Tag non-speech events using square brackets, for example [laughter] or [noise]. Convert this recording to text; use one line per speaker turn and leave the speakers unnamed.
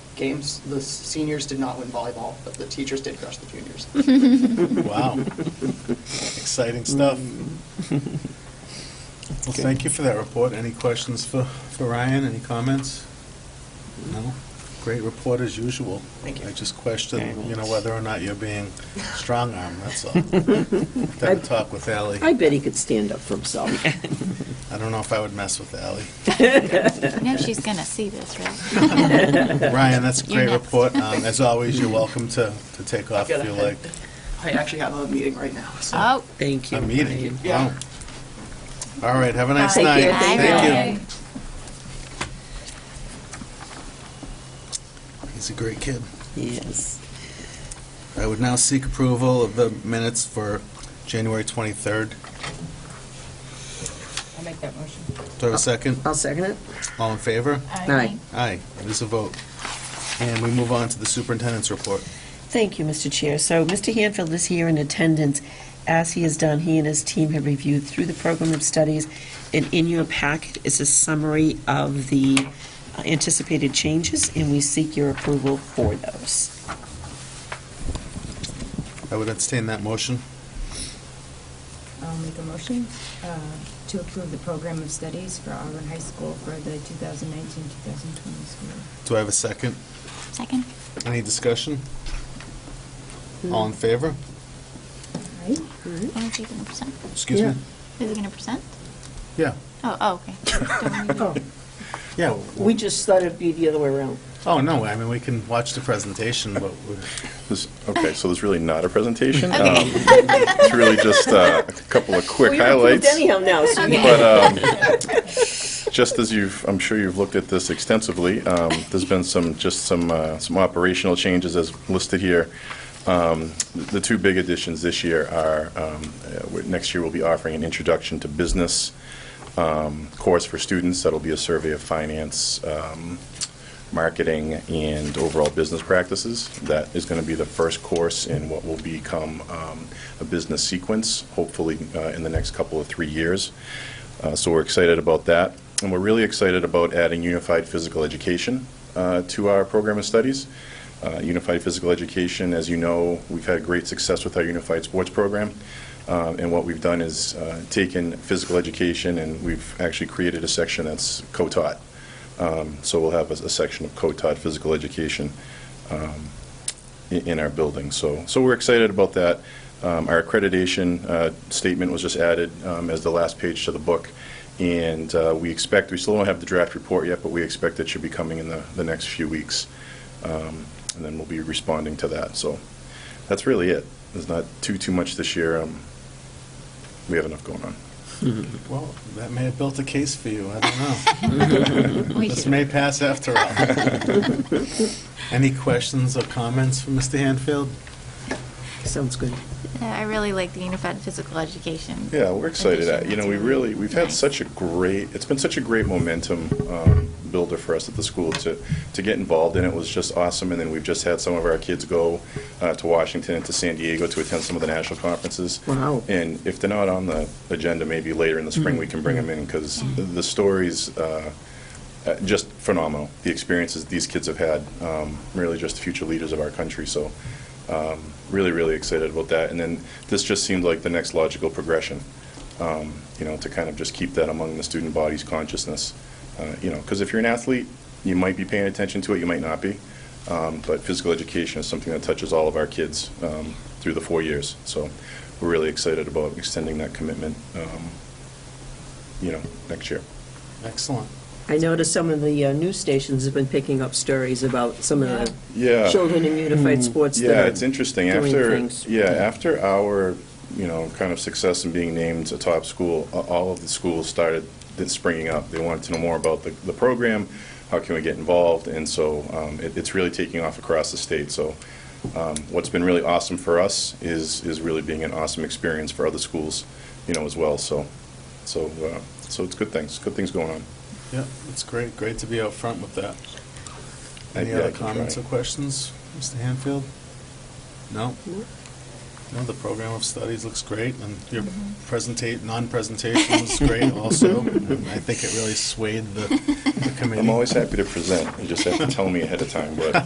games, the seniors did not win volleyball, but the teachers did crush the juniors.
Wow. Exciting stuff. Well, thank you for that report. Any questions for, for Ryan? Any comments? No? Great report as usual.
Thank you.
I just question,
Very
you know,
nice.
whether or not you're being strong-armed, that's [laughs] all. Had a talk with Ally.
I bet he could stand up
[laughs]
for himself.
I don't know if I would mess with [laughs] Ally.
No, she's going to see this, right?
Ryan, that's a
You're
great
next.
report. Um, As always, you're welcome to, to take off if you like.
I actually have a meeting right now, so.
Oh,
Thank you.
A meeting.
Yeah.
Wow. All right, have a nice
Take
night.
care.
Bye,
Thank
Ryan.
you. He's a great kid.
Yes.
I would now seek approval of the minutes for January 23rd.
I'll make that motion.
Do I have a second?
I'll second it.
All in favor?
Aye.
Aye, it is a vote. And we move on to the superintendent's report.
Thank you, Mr. Chair. So Mr. Hanfield is here in attendance. As he has done, he and his team have reviewed through the program of studies, and in your packet is a summary of the anticipated changes, and we seek your approval for those.
I would entertain that motion.
I'll make a motion uh, to approve the program of studies for Auburn High School for the 2019-2020 school. year.
Do I have a second?
second?
Any discussion? All in favor?
Right?
Hmm?
When is he going to present?
Excuse me?
Is he going to present?
Yeah.
Oh, oh, okay. Don't we-
Yeah.
We just thought it'd be the other way around.
Oh, no, I mean, we can watch the presentation, but we-
This- Okay, so there's really not a presentation.
Okay.
Um, It's really just uh, a couple of quick highlights.
Anyhow now, so you-
But um, just as you've, I'm sure you've looked at this extensively, um, there's been some, just some, uh, some operational changes as listed here. Um, The two big additions this year are, um, uh, we're- next year we'll be offering an introduction to business um, course for students. That'll be a survey of finance, um, marketing, and overall business practices. That is going to be the first course in what will become um, a business sequence, hopefully uh, in the next couple of three years. Uh, So we're excited about that. And we're really excited about adding unified physical education uh, to our program of studies. Uh, Unified physical education, as you know, we've had great success with our unified sports program. Uh, And what we've done is uh, taken physical education and we've actually created a section that's co-taught. Um, So we'll have a a section of co-taught physical education um, i- in our building. So, so we're excited about that. Um, Our accreditation uh, statement was just added um, as the last page to the book, and uh, we expect, we still don't have the draft report yet, but we expect it should be coming in the, the next few weeks. Um, And then we'll be responding to that, so that's really it. There's not too, too much this year. Um, We have enough going on.
well, that may have built a case for you, I don't know.
we
This
should-
may pass after all. Any questions or comments from Mr. Hanfield?
Sounds good.
Yeah, I really like the unified physical education.
Yeah, we're excited.
addition.
Uh, You know, we
That's
really, we've had
nice.
such a great, it's been such a great momentum um, builder for us at the school to, to get involved in it was just awesome. And then we've just had some of our kids go uh, to Washington and to San Diego to attend some of the national conferences.
Wow.
And if they're not on the agenda, maybe later in the spring, we can bring them in because the stories, uh, uh, just phenomenal. The experiences these kids have had, um, really just future leaders of our country. So um, really, really excited about that. And then this just seemed like the next logical progression, um, you know, to kind of just keep that among the student body's consciousness. Uh, you know, because if you're an athlete, you might be paying attention to it, you might not be. Um, but physical education is something that touches all of our kids um, through the four years. So we're really excited about extending that commitment, um, you know, next year.
Excellent.
I noticed some of the uh, news stations have been picking up stories about some of the
Yeah. Mm-hmm.
children in unified sports that
Yeah,
are
it's interesting.
doing
After,
things.
yeah, after our, you know, kind of success in being named a top school, a- all of the schools started th- springing up. They wanted to know more about the, the program, how can we get involved, and so um, it, it's really taking off across the state. So um, what's been really awesome for us is, is really being an awesome experience for other schools, you know, as well. So, so, uh, so it's good things, good things going on.
Yep, it's great, great to be out front with that. Any
Yeah, I
other
can try.
comments or questions, Mr. Hanfield? No? No, the program of studies looks great, and your presentate, non-presentation was great also. And I think it really swayed the the committee.
I'm always happy to present, you just have to tell me ahead of time, but